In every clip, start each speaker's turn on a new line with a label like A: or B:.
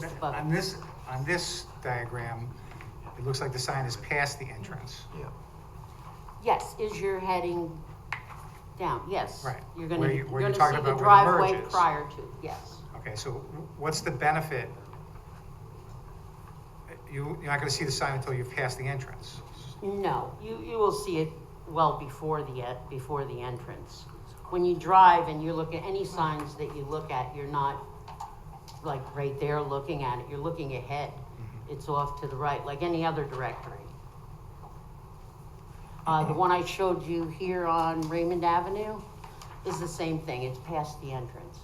A: Just above
B: On
A: it.
B: this, on this diagram, it looks like the sign is past the entrance.
C: Yeah.
A: Yes, is your heading down, yes.
B: Right.
A: You're gonna,
B: Where you-
A: you're
B: where you're
A: gonna see
B: talking
A: the
B: about where the
A: driveway
B: merge is.
A: prior to, yes.
B: Okay, so what's the benefit? You, you're not gonna see the sign until you've passed the entrance.
A: No, you, you will see it well before the, e- before the entrance. When you drive and you look at any signs that you look at, you're not like right there looking at it, you're looking ahead. It's off to the right, like any other directory. Uh, the one I showed you here on Raymond Avenue is the same thing, it's past the entrance.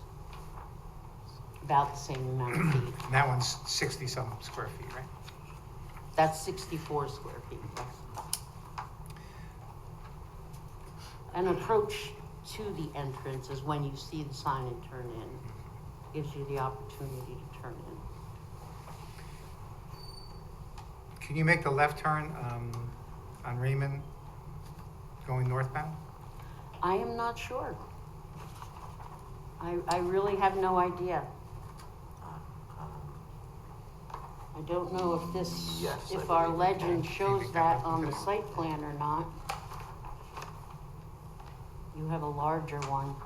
A: About the same amount of feet.
B: And that one's sixty-some square feet, right?
A: That's sixty-four square feet, yes. An approach to the entrance is when you see the sign and turn in. Gives you the opportunity to turn in.
B: Can you make the left turn, um, on Raymond going northbound?
A: I am not sure. I, I really have no idea. I don't know if this,
C: Yes, I
A: if our
C: believe
A: legend
B: can.
A: shows that on the site plan or not. You have a larger one.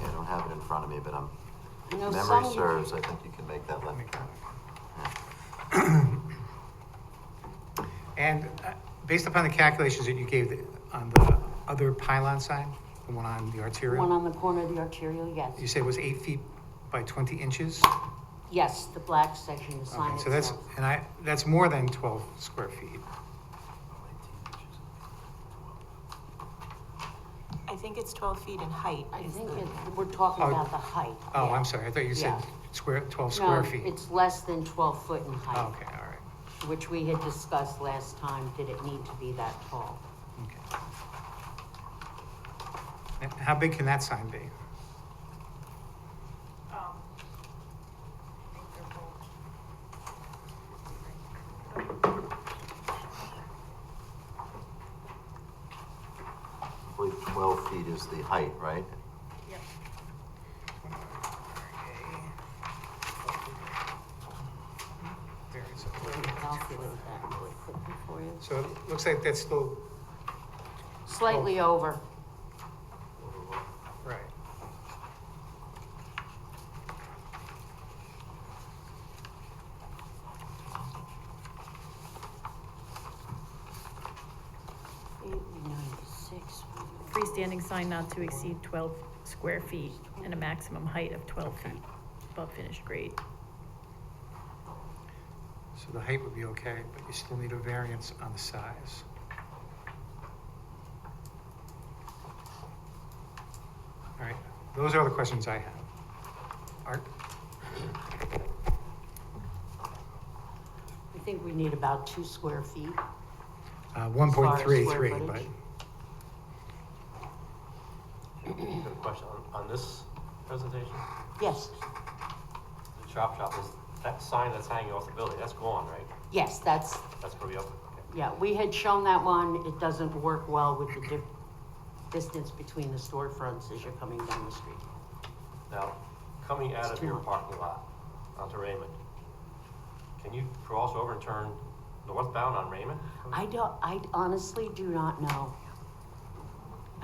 C: Yeah, I don't have it in front of me, but I'm,
A: I know some
C: memory
A: you-
C: serves, I think you can make that
B: Let me
C: left.
B: count. And uh, based upon the calculations that you gave on the other pylon sign, the one on the
A: One
B: arterial,
A: on the corner of the arterial,
B: you
A: yes.
B: said was eight feet by twenty inches?
A: Yes, the black section, the sign
B: Okay, so that's,
A: itself.
B: and I, that's more than twelve square feet.
D: I think it's twelve feet in height.
A: I
D: is
A: think
D: the-
A: it, we're talking
B: Oh.
A: about the height.
B: Oh,
A: yeah.
B: I'm sorry, I thought you said
A: Yeah.
B: square, twelve square
A: No,
B: feet.
A: it's less than twelve foot in
B: Oh,
A: height,
B: Okay, all right,
A: which we had discussed last time, did it need to be that tall?
B: okay. And how big can that sign be?
E: Um, I think they're both.
C: I believe twelve feet is the height, right?
E: Yep.
B: There, it's over.
A: We'll Calculate that really quickly for you.
B: So it looks like that's still,
A: Slightly
B: Oh.
A: over,
B: right.
A: eight ninety-six.
F: freestanding sign not to exceed twelve square feet and a maximum height of twelve feet above finished grade.
B: So the height would be okay, but you still need a variance on the size. All right, those are the questions I have. Art?
A: I think we need about two square feet.
B: Uh, one point three three,
A: square
B: but
A: footage.
G: Got a question on, on this presentation,
A: Yes,
G: the chop shop, is that sign that's hanging off the building, that's gone, right?
A: yes, that's,
G: That's gonna be up, okay.
A: Yeah, we had shown that one, it doesn't work well with the dif- distance between the storefronts as you're coming down the street.
G: Now, coming out
A: It's
G: of your
A: too-
G: parking lot onto Raymond, can you cross over and turn northbound on Raymond?
A: I don't, I honestly do not know.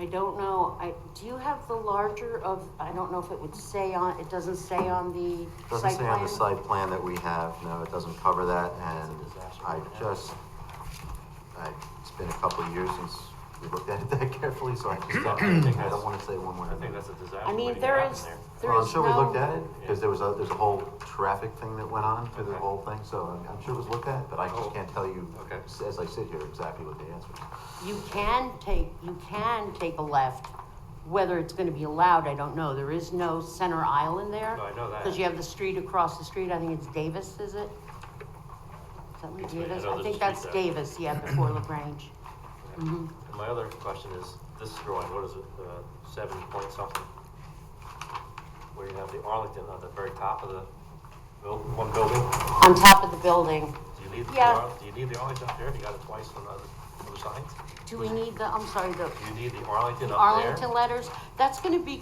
A: I don't know, I, do you have the larger of, I don't know if it would say on, it doesn't say on the
C: Doesn't
A: site
C: say on
A: plan?
C: the site plan that we have, no, it doesn't cover that, and I just, I, it's been a couple of years since we looked at it that carefully, so I just, don't- I don't wanna say one way
G: I
C: or
G: think
C: another.
G: that's a disaster
A: I mean,
G: waiting to
A: there
G: happen
A: is,
G: there.
A: there
C: Well, I'm
A: is
C: sure we looked at
A: no,
C: it, because there was a, there's a whole traffic thing that went on through the
G: Okay.
C: whole thing, so I'm- I'm sure it was looked at, but I
G: Oh.
C: just can't tell you,
G: Okay.
C: as I sit here, exactly what the answer is.
A: you can take, you can take a left. Whether it's gonna be allowed, I don't know, there is no center island there.
G: No, Oh, I know that.
A: Because you have the street across the street, I think it's Davis, is it? Something
G: Yeah, I
A: Davis,
G: know
A: I think
G: there's a street
A: that's
G: there.
A: Davis, yeah, before LaGrange.
G: And my other question is, this drawing, what is it, uh, seven point something? Where you have the Arlington on the very top of the buil- one building,
A: On top of the building,
G: do you need the,
A: Yeah.
G: Arl- do you need the Arlington up there, you got it twice on the other, other signs?
A: do we need the, I'm sorry, the
G: Do you need the Arlington up there?
A: Arlington letters? That's gonna be